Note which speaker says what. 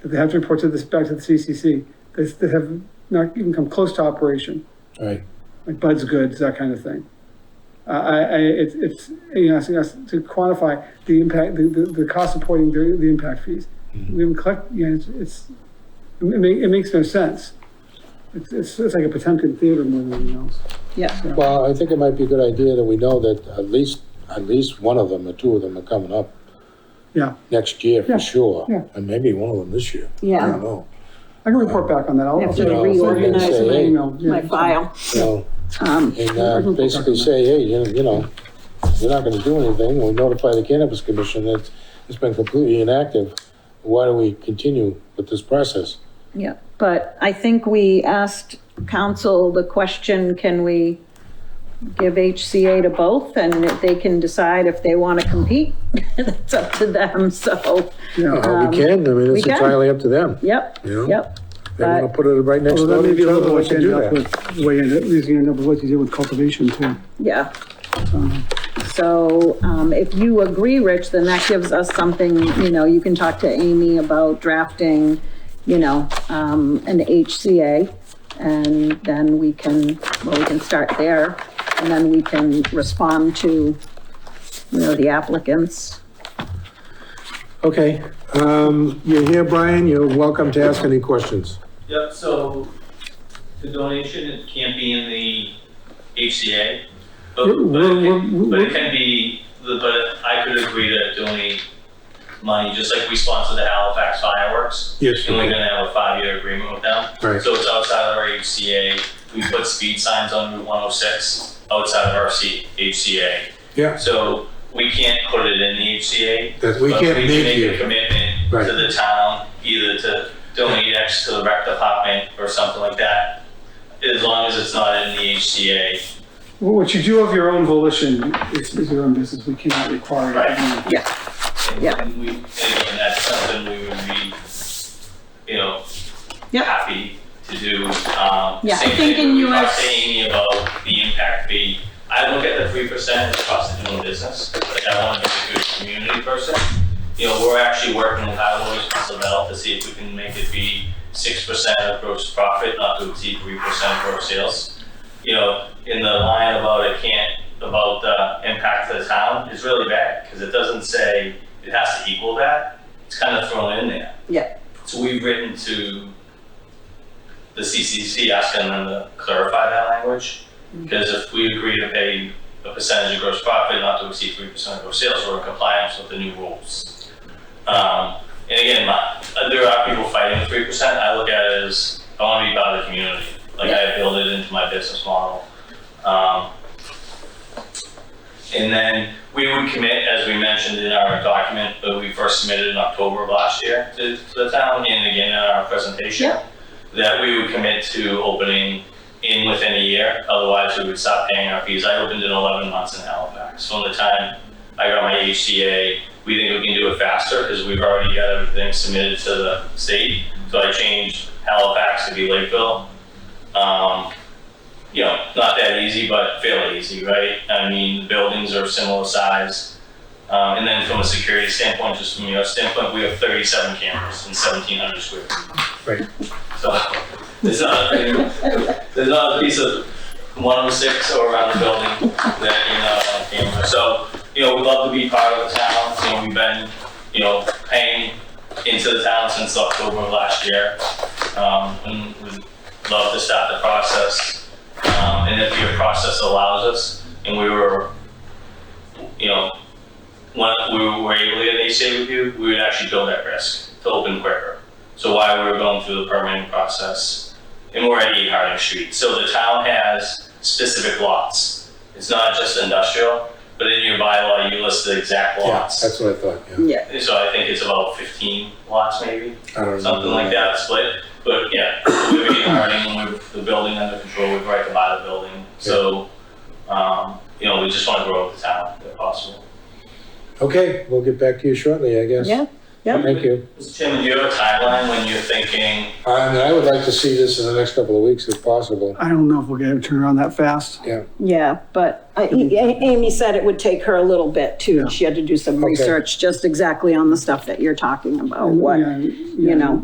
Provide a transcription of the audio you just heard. Speaker 1: that they have to report to this, back to the CCC, that's- that have not even come close to operation,
Speaker 2: All right.
Speaker 1: like Bud's Goods, that kind of thing. Uh, I, I, it's, it's, you know, asking us to quantify the impact, the, the, the cost supporting the, the impact fees. We haven't collect, you know, it's, it's, it ma, it makes no sense. It's, it's, it's like a Potemkin theater more than anything else.
Speaker 3: Yeah,
Speaker 2: Well, I think it might be a good idea that we know that at least, at least one of them or two of them are coming up
Speaker 1: Yeah,
Speaker 2: next year
Speaker 1: Yeah,
Speaker 2: for sure.
Speaker 1: yeah.
Speaker 2: And maybe one of them this year. I
Speaker 3: yeah.
Speaker 2: don't know.
Speaker 1: I can report back on that. I'll-
Speaker 3: I have to
Speaker 1: I'll-
Speaker 3: reorganize
Speaker 1: I'll-
Speaker 2: my-
Speaker 1: email, yeah.
Speaker 3: My file.
Speaker 2: You know,
Speaker 3: Um,
Speaker 2: and uh, basically say, hey, you you know, you're not gonna do anything. We'll notify the cannabis commission that it's been completely inactive. Why do we continue with this process?
Speaker 3: yeah, but I think we asked council the question, can we give HCA to both? And they can decide if they want to compete. That's up to them, so,
Speaker 1: Yeah,
Speaker 2: Uh, We can, I mean,
Speaker 3: Um, we
Speaker 2: it's
Speaker 3: can.
Speaker 2: entirely up to them.
Speaker 3: yep,
Speaker 2: Yeah.
Speaker 3: yep.
Speaker 2: They wanna
Speaker 3: But,
Speaker 2: put it right next
Speaker 1: well,
Speaker 2: door
Speaker 1: that may
Speaker 2: to
Speaker 1: be
Speaker 2: each other,
Speaker 1: another way
Speaker 2: they
Speaker 1: to
Speaker 2: can
Speaker 1: end
Speaker 2: do
Speaker 1: up
Speaker 2: that.
Speaker 1: with, way in, is gonna end up with what you did with cultivation too.
Speaker 3: yeah. So um, if you agree, Rich, then that gives us something, you know, you can talk to Amy about drafting, you know, um, an HCA, and then we can, well, we can start there, and then we can respond to, you know, the applicants.
Speaker 2: Okay, um, you're here, Brian, you're welcome to ask any questions.
Speaker 4: Yep, so the donation, it can't be in the HCA, but,
Speaker 1: We're-
Speaker 4: but, it,
Speaker 1: we're-
Speaker 4: can, but
Speaker 1: we're-
Speaker 4: it can be, the- but I could agree to donate money, just like we sponsor the Halifax fireworks.
Speaker 2: Yes.
Speaker 4: And we're gonna have a five-year agreement with them.
Speaker 2: Right.
Speaker 4: So it's outside of our HCA, we put speed signs on Route one oh six outside of our C, HCA.
Speaker 2: Yeah.
Speaker 4: So we can't put it in the HCA,
Speaker 2: That we
Speaker 4: but
Speaker 2: can't
Speaker 4: we
Speaker 2: leave
Speaker 4: make a
Speaker 2: you.
Speaker 4: commitment
Speaker 2: Right.
Speaker 4: to the town, either to donate X to the rec department or something like that, as long as it's not in the HCA.
Speaker 1: Well, What you do of your own volition is, is your own business. We cannot require it.
Speaker 4: Right. And-
Speaker 3: Yeah.
Speaker 4: And we, and again, that's something we would be, you know,
Speaker 3: Yeah.
Speaker 4: happy to do. Um,
Speaker 3: Yeah, I
Speaker 4: same
Speaker 3: think
Speaker 4: thing
Speaker 3: in
Speaker 4: we were
Speaker 3: US
Speaker 4: Saying about the impact fee, I look at the three percent as cost of doing business, like I want to be a good community person. You know, we're actually working with Highways and Council of Health to see if we can make it be six percent of gross profit, not to exceed three percent of gross sales. You know, in the line about it can't, about the impact to the town is really bad, because it doesn't say it has to equal that. It's kind of thrown in there.
Speaker 3: Yeah.
Speaker 4: So we've written to the CCC asking them to clarify that language. Because if we agree to pay a percentage of gross profit not to exceed three percent of gross sales, we're in compliance with the new rules. Um, and again, my, uh, there are people fighting the three percent, I look at it as, I wanna be part of the community, like I build it into my business model. Um, and then we would commit, as we mentioned in our document that we first submitted in October of last year to, to the town, and again in our presentation,
Speaker 3: Yeah.
Speaker 4: that we would commit to opening in within a year, otherwise we would stop paying our fees. I opened in eleven months in Halifax. From the time I got my HCA, we think we can do it faster because we've already got everything submitted to the state. So I changed Halifax to be Lakeville. Um, you know, not that easy, but fairly easy, right? I mean, the buildings are similar size. Um, and then from a security standpoint, just from your standpoint, we have 37 cameras and 1,700 square feet.
Speaker 2: Right.
Speaker 4: So there's not, there's not a piece of 106 or around the building that, you know, camera. So, you know, we love to be part of the town. You know, we've been, you know, paying into the town since October of last year. Um, and we'd love to start the process um, and if your process allows us, and we were, you know, when we were able to get an HCA review, we would actually build that risk to open quicker. So while we were going through the permitting process, and we're at 8 Harding Street, so the town has specific lots. It's not just industrial, but in your bylaw, you list the exact
Speaker 2: Yeah,
Speaker 4: lots.
Speaker 2: that's what I thought, yeah.
Speaker 3: Yeah.
Speaker 4: And So I think it's about 15 lots maybe
Speaker 2: I don't know.
Speaker 4: something like that split. But yeah, we have eight Harding, we have the building under control, we've right to buy the building. So, um, you know, we just want to grow the town if possible.
Speaker 2: Okay, we'll get back to you shortly, I guess.
Speaker 3: Yeah, yeah.
Speaker 2: Thank you.
Speaker 4: Mr. Chairman, do you have a timeline when you're thinking,
Speaker 2: And I would like to see this in the next couple of weeks if possible.
Speaker 1: I don't know if we'll get it turned around that fast.
Speaker 3: Yeah, but I- A- Amy said it would take her a little bit
Speaker 1: Yeah.
Speaker 3: too. She had to do some
Speaker 2: Okay.
Speaker 3: research, just exactly on the stuff that you're talking about, what,
Speaker 1: Yeah,
Speaker 3: you
Speaker 1: yeah.
Speaker 3: know,